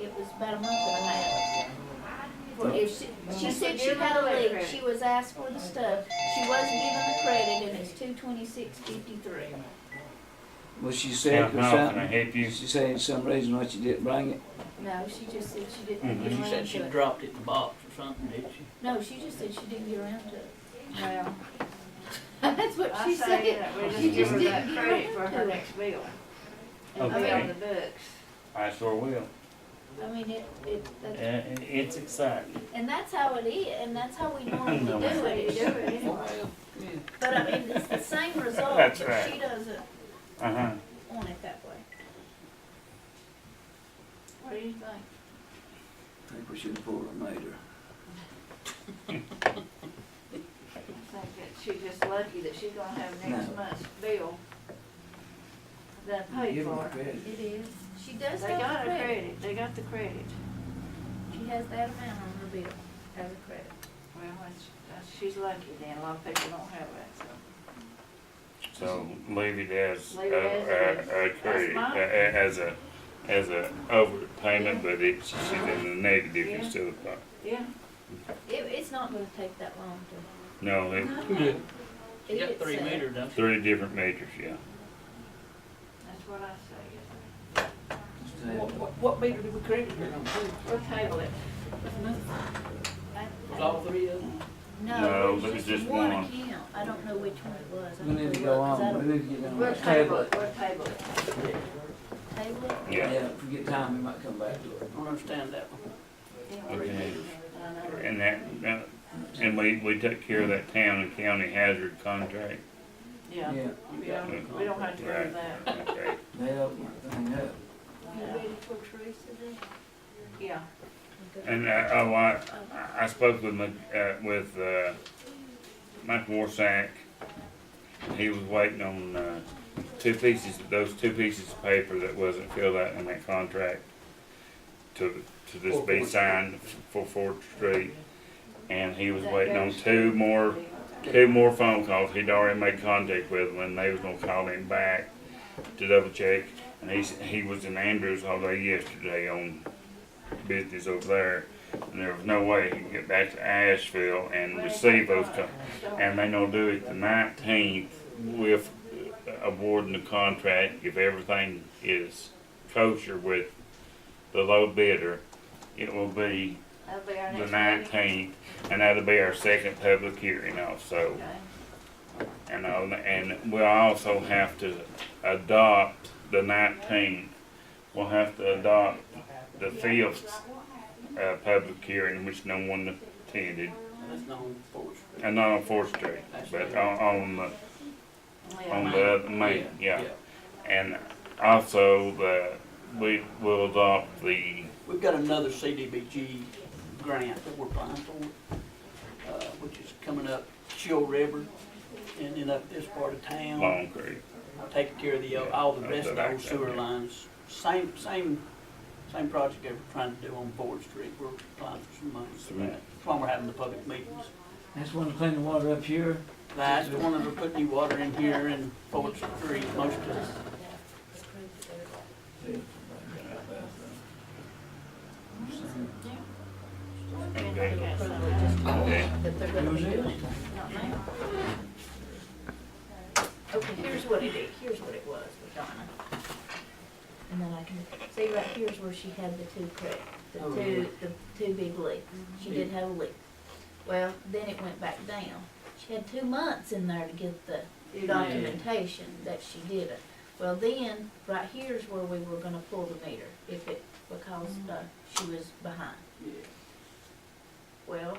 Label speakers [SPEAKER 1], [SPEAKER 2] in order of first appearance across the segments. [SPEAKER 1] it was about a month and a half. For if she, she said she had a leak, she was asked for the stuff, she wasn't given the credit, and it's two twenty-six fifty-three.
[SPEAKER 2] Was she
[SPEAKER 3] How
[SPEAKER 2] sick or
[SPEAKER 3] how can I
[SPEAKER 2] something?
[SPEAKER 3] help you?
[SPEAKER 2] Did she say some reason why she didn't bring it?
[SPEAKER 1] No, she just said she
[SPEAKER 3] Mhm.
[SPEAKER 1] didn't get
[SPEAKER 4] Mm-hmm. She
[SPEAKER 1] around
[SPEAKER 4] said she
[SPEAKER 1] to it.
[SPEAKER 4] dropped it in the box or something, did she?
[SPEAKER 1] No, she just said she didn't get around to it. Well. That's what
[SPEAKER 5] I
[SPEAKER 1] she
[SPEAKER 5] say
[SPEAKER 1] said.
[SPEAKER 5] that we
[SPEAKER 1] You
[SPEAKER 5] just give her
[SPEAKER 1] just
[SPEAKER 5] that
[SPEAKER 1] didn't
[SPEAKER 5] credit
[SPEAKER 1] give
[SPEAKER 5] for
[SPEAKER 1] her
[SPEAKER 5] her
[SPEAKER 1] to.
[SPEAKER 5] next bill.
[SPEAKER 1] I mean,
[SPEAKER 5] It'll be
[SPEAKER 3] Okay.
[SPEAKER 5] on the books.
[SPEAKER 3] I sure will.
[SPEAKER 1] I mean, it, it,
[SPEAKER 3] Uh,
[SPEAKER 1] that's-
[SPEAKER 3] It's exciting.
[SPEAKER 1] and that's how it is, and that's how we normally
[SPEAKER 3] No,
[SPEAKER 1] do
[SPEAKER 5] That's how
[SPEAKER 1] it.
[SPEAKER 5] you do
[SPEAKER 1] is-
[SPEAKER 5] it anyway.
[SPEAKER 1] But I mean, it's the same result, but
[SPEAKER 3] That's right.
[SPEAKER 1] she doesn't
[SPEAKER 3] Uh-huh.
[SPEAKER 1] want it that way. What do you think?
[SPEAKER 2] I think we should have pulled her and made her.
[SPEAKER 5] I think that she's just lucky that she's gonna have next
[SPEAKER 2] No.
[SPEAKER 5] month's bill done paid
[SPEAKER 2] Give her
[SPEAKER 5] for.
[SPEAKER 2] credit.
[SPEAKER 1] It is. She does
[SPEAKER 5] They got
[SPEAKER 1] have
[SPEAKER 5] her
[SPEAKER 1] the credit.
[SPEAKER 5] credit, they got the credit.
[SPEAKER 1] She has that amount on her bill as a credit.
[SPEAKER 5] Well, that's, that's, she's lucky then, a lot of people don't have that, so.
[SPEAKER 3] So leave it as,
[SPEAKER 5] Leave it as
[SPEAKER 3] a- a, a credit,
[SPEAKER 5] mine.
[SPEAKER 3] a- a- as a, as a overpayment, but it's, she's in the negative
[SPEAKER 5] Yeah.
[SPEAKER 3] instead of, po-
[SPEAKER 5] Yeah,
[SPEAKER 1] It, it's not gonna take that long
[SPEAKER 3] no, it-
[SPEAKER 5] Uh-huh.
[SPEAKER 1] to.
[SPEAKER 4] She got
[SPEAKER 1] It's,
[SPEAKER 4] three
[SPEAKER 1] uh,
[SPEAKER 4] meters, don't she?
[SPEAKER 3] three different meters, yeah.
[SPEAKER 5] that's what I say.
[SPEAKER 2] Say,
[SPEAKER 4] what meter did we credit her on?
[SPEAKER 5] We'll table it.
[SPEAKER 1] I-
[SPEAKER 4] Was all three of them?
[SPEAKER 3] No,
[SPEAKER 1] No,
[SPEAKER 3] but
[SPEAKER 1] it was
[SPEAKER 3] it's
[SPEAKER 1] just
[SPEAKER 3] just
[SPEAKER 1] one
[SPEAKER 3] one.
[SPEAKER 1] account. I don't know which one it was. I
[SPEAKER 2] We
[SPEAKER 1] have
[SPEAKER 2] need to
[SPEAKER 1] look,
[SPEAKER 2] go
[SPEAKER 1] 'cause I
[SPEAKER 2] on,
[SPEAKER 1] don't-
[SPEAKER 2] we need to get on
[SPEAKER 5] We'll
[SPEAKER 2] that
[SPEAKER 5] table
[SPEAKER 2] table.
[SPEAKER 5] it, we'll table it.
[SPEAKER 1] Table it.
[SPEAKER 3] Yeah.
[SPEAKER 2] Yeah, if we get time, we might come back to it.
[SPEAKER 4] I don't understand that one.
[SPEAKER 5] Yeah, we'll
[SPEAKER 3] Okay.
[SPEAKER 5] read it. I know.
[SPEAKER 3] And that, that- and we, we took care of that town and county hazard contract.
[SPEAKER 5] Yeah,
[SPEAKER 2] Yeah,
[SPEAKER 5] we don't, we don't have to go to
[SPEAKER 3] Right.
[SPEAKER 5] that.
[SPEAKER 3] Okay.
[SPEAKER 2] they opened the thing up.
[SPEAKER 1] You ready for Teresa then?
[SPEAKER 5] Yeah,
[SPEAKER 3] And, uh, oh, I, I spoke with my, uh, with, uh, Mike Warsack. He was waiting on, uh, two pieces, those two pieces of paper that wasn't filled out in that contract to, to this be signed for Ford Street. And he was waiting on two more, two more phone calls. He'd already made contact with them and they was gonna call him back to double check. And he's, he was in Andrews all day yesterday on business over there. And there was no way he could get back to Asheville and receive those co- and they're gonna do it the nineteenth with uh, awarding the contract, if everything is kosher with the low bidder, it will be
[SPEAKER 5] that'll be our
[SPEAKER 3] the
[SPEAKER 5] next meeting.
[SPEAKER 3] nineteenth, and that'll be our second public hearing also.
[SPEAKER 5] Okay.
[SPEAKER 3] And, on the- and we'll also have to adopt the nineteenth, we'll have to adopt the fifth, uh, public hearing, which no one attended,
[SPEAKER 4] That's not on Fourth Street.
[SPEAKER 3] and not on Fourth Street, but on, on the
[SPEAKER 5] Yeah,
[SPEAKER 3] on
[SPEAKER 5] mine.
[SPEAKER 3] the other main, yeah. And also the, we will adopt the,
[SPEAKER 4] We've got another CDBG grant that we're applying for, uh, which is coming up Chill River, and then up this part of town.
[SPEAKER 3] Long Creek.
[SPEAKER 4] taking care of the, uh, all the rest of the old sewer lines. Same, same, same project they were trying to do on Ford Street, we're applying for some money for that. That's why we're having the public meetings.
[SPEAKER 2] That's when they clean the water up here.
[SPEAKER 4] That's the one that we're putting new water in here in Ford Street, most of it.
[SPEAKER 3] Okay.
[SPEAKER 5] Yeah, so, uh,
[SPEAKER 3] Okay.
[SPEAKER 1] That they're gonna be doing. Not now. Okay, here's what it is, here's what it was with Donna. And then I can, see right here's where she had the two credit, the
[SPEAKER 4] Oh,
[SPEAKER 1] two, the two big leaks. She did have a leak. Well, then it went back down. She had two months in there to get the documentation that she did it. Well, then, right here's where we were gonna pull the meter if it, because, uh, she was behind. Well,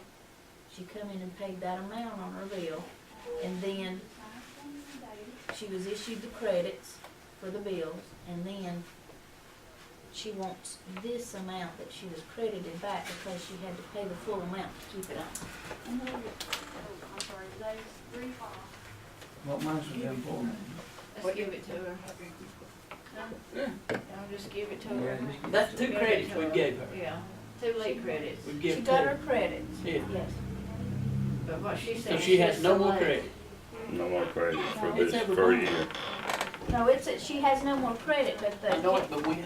[SPEAKER 1] she come in and paid that amount on her bill, and then she was issued the credits for the bills, and then she wants this amount that she was credited back because she had to pay the full amount to keep it on.
[SPEAKER 2] What mines was them for?
[SPEAKER 5] Let's give it to her. I'll just give it to her.
[SPEAKER 2] Yeah.
[SPEAKER 4] That's two credits we gave her.
[SPEAKER 5] Yeah, two late credits,
[SPEAKER 4] We
[SPEAKER 1] She
[SPEAKER 4] give two.
[SPEAKER 1] got her credits,
[SPEAKER 4] Yeah.
[SPEAKER 1] yes.
[SPEAKER 5] but what she
[SPEAKER 4] So
[SPEAKER 5] said.
[SPEAKER 4] she has
[SPEAKER 5] she's
[SPEAKER 4] no
[SPEAKER 5] so
[SPEAKER 4] more
[SPEAKER 5] late.
[SPEAKER 4] credit.
[SPEAKER 3] No more credit for
[SPEAKER 4] It's
[SPEAKER 3] this,
[SPEAKER 4] every
[SPEAKER 3] for a
[SPEAKER 4] month.
[SPEAKER 3] year.
[SPEAKER 1] No, it's, that she has no more credit, but
[SPEAKER 4] I know
[SPEAKER 1] the,
[SPEAKER 4] it, but we,